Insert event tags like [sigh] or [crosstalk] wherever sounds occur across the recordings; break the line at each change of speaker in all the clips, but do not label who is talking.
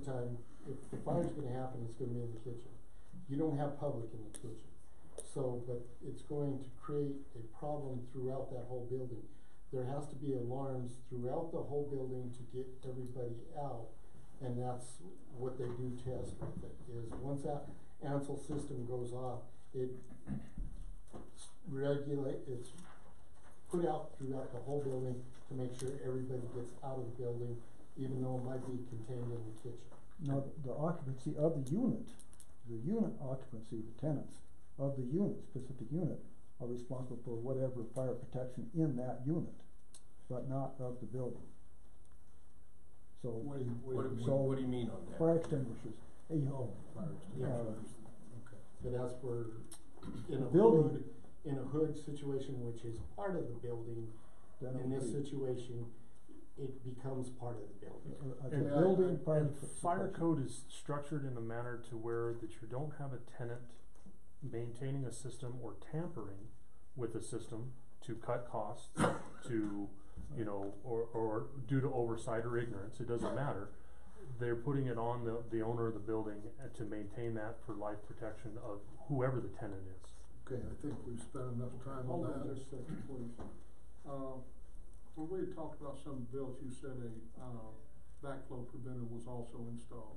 time, if the fire's gonna happen, it's gonna be in the kitchen. You don't have public in the kitchen. So, but it's going to create a problem throughout that whole building. There has to be alarms throughout the whole building to get everybody out. And that's what they do test with it, is once that Ansel system goes off, it s- regulate, it's put out throughout the whole building to make sure everybody gets out of the building, even though it might be contained in the kitchen.
Now, th- the occupancy of the unit, the unit occupancy, the tenants of the unit, specific unit, are responsible for whatever fire protection in that unit, but not of the building. So,
What do you, what do you?
So-
what do you mean on that?
fire extinguishers, eh, you know,
Oh, fire extinguishers, okay.
But as for in a
Building.
hood, in a hood situation, which is part of the building,
then it
in
would
this
be,
situation, it becomes part of the building.
uh, uh, the
And,
uh,
building
and
fire
And
protection.
fire code is structured in a manner to where that you don't have a tenant maintaining a system or tampering with a system to cut costs, to, you know, or, or due to oversight or ignorance, it doesn't matter. They're putting it on the, the owner of the building uh, to maintain that for life protection of whoever the tenant is.
Okay, I think we've spent enough time on
Hold
that.
on just a second, please. Uh, when we had talked about some bills, you said a, uh, backflow preventer was also installed.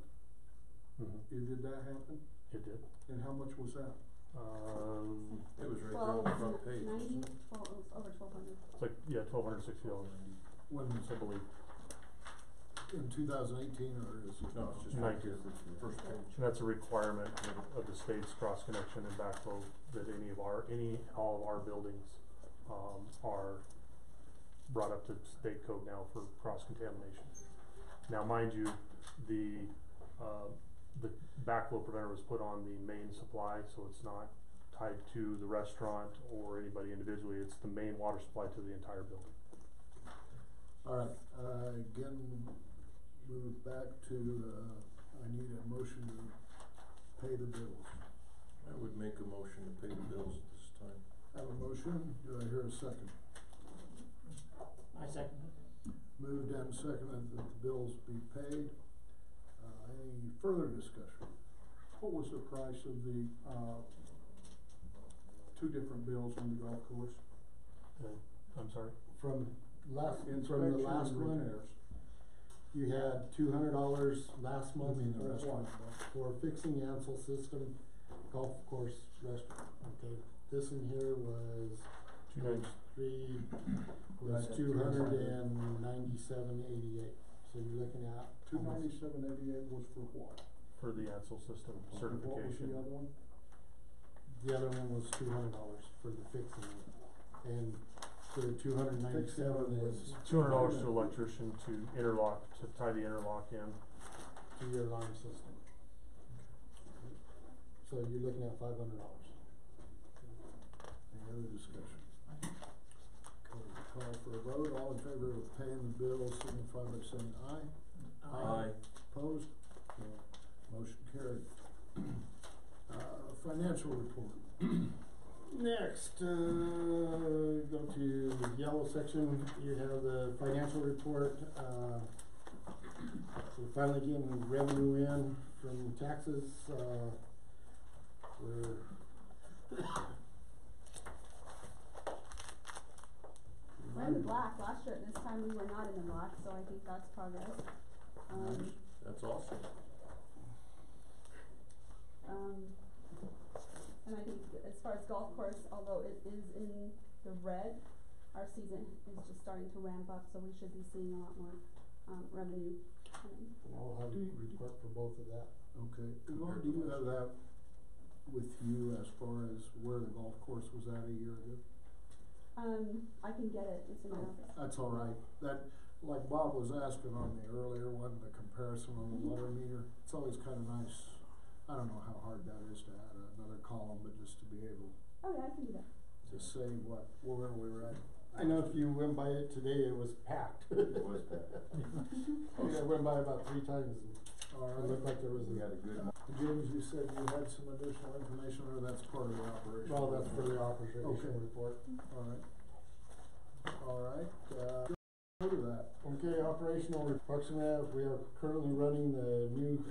Mm-hmm.
Mhm.
Did did that happen?
It did.
And how much was that?
Um,
It was right there on
Twelve
the front page.
ninety,
wasn't it?
twelve, over twelve hundred.
it's like, yeah, twelve hundred sixty dollars,
When,
I believe.
in two thousand eighteen, or is it?
No, it's just right there, the first page.
And that's a requirement of- of the state's cross connection and backflow that any of our, any, and all of our buildings, um, are brought up to state code now for cross contamination. Now, mind you, the, uh, the backflow preventer was put on the main supply, so it's not tied to the restaurant or anybody individually, it's the main water supply to the entire building.
All right, uh, again, move it back to, uh, I need a motion to pay the bills.
I would make a motion to pay the bills at this time.
Have a motion, do I hear a second?
I second it.
Moved and seconded that the bills be paid. Uh, any further discussion?
What was the price of the, uh, two different bills on the golf course?
Uh, I'm sorry?
From last, from the
Inspection
last
and
one,
repairs.
you had two hundred dollars last
I
month
mean, the
for
restaurant.
for fixing the Ansel system, golf course, restaurant, okay? This in here was
Two names.
three, was
Right.
two hundred and ninety-seven eighty-eight, so you're looking at.
Two ninety-seven eighty-eight was for what?
For the Ansel system
And What was the
certification.
other one?
The other one was two hundred dollars for the fixing it, and the two hundred ninety-seven is
Two hundred dollars to electrician to interlock, to tie the interlock in.
to your alarm system. So you're looking at five hundred dollars.
Any other discussion? Okay, call for a vote, all in favor of paying the bills, signify by saying aye.
Aye.
Opposed? No. Motion carried. Uh, financial report.
Next, uh, go to the yellow section, you have the financial report, uh, we're finally getting revenue in from taxes, uh, we're.
We're in the black last year, at this time we were not in the black, so I think that's progress. Um,
That's awesome.
um, and I think as far as golf course, although it is in the red, our season is just starting to ramp up, so we should be seeing a lot more, um, revenue coming.
I'll have a report for both of that.
Okay, Lauren, do you have that with you as far as where the golf course was at a year ago?
Um, I can get it, it's in my office.
That's all right, that, like Bob was asking on the earlier one, the comparison on the water meter, it's always kinda nice. I don't know how hard that is to add another column, but just to be able
Oh, yeah, I can do that.
to say what, where we were at.
I know if you went by it today, it was packed.
It was bad.
Yeah, [laughs] I went by about three times,
All
and it
right,
looked like there was
We
a,
had a good.
James, you said you had some additional information, or that's part of the operation?
well, that's for the
Okay.
operation report.
All right. All right, uh, go to that.
Okay, operational re- Parks and Rec, we are currently running the new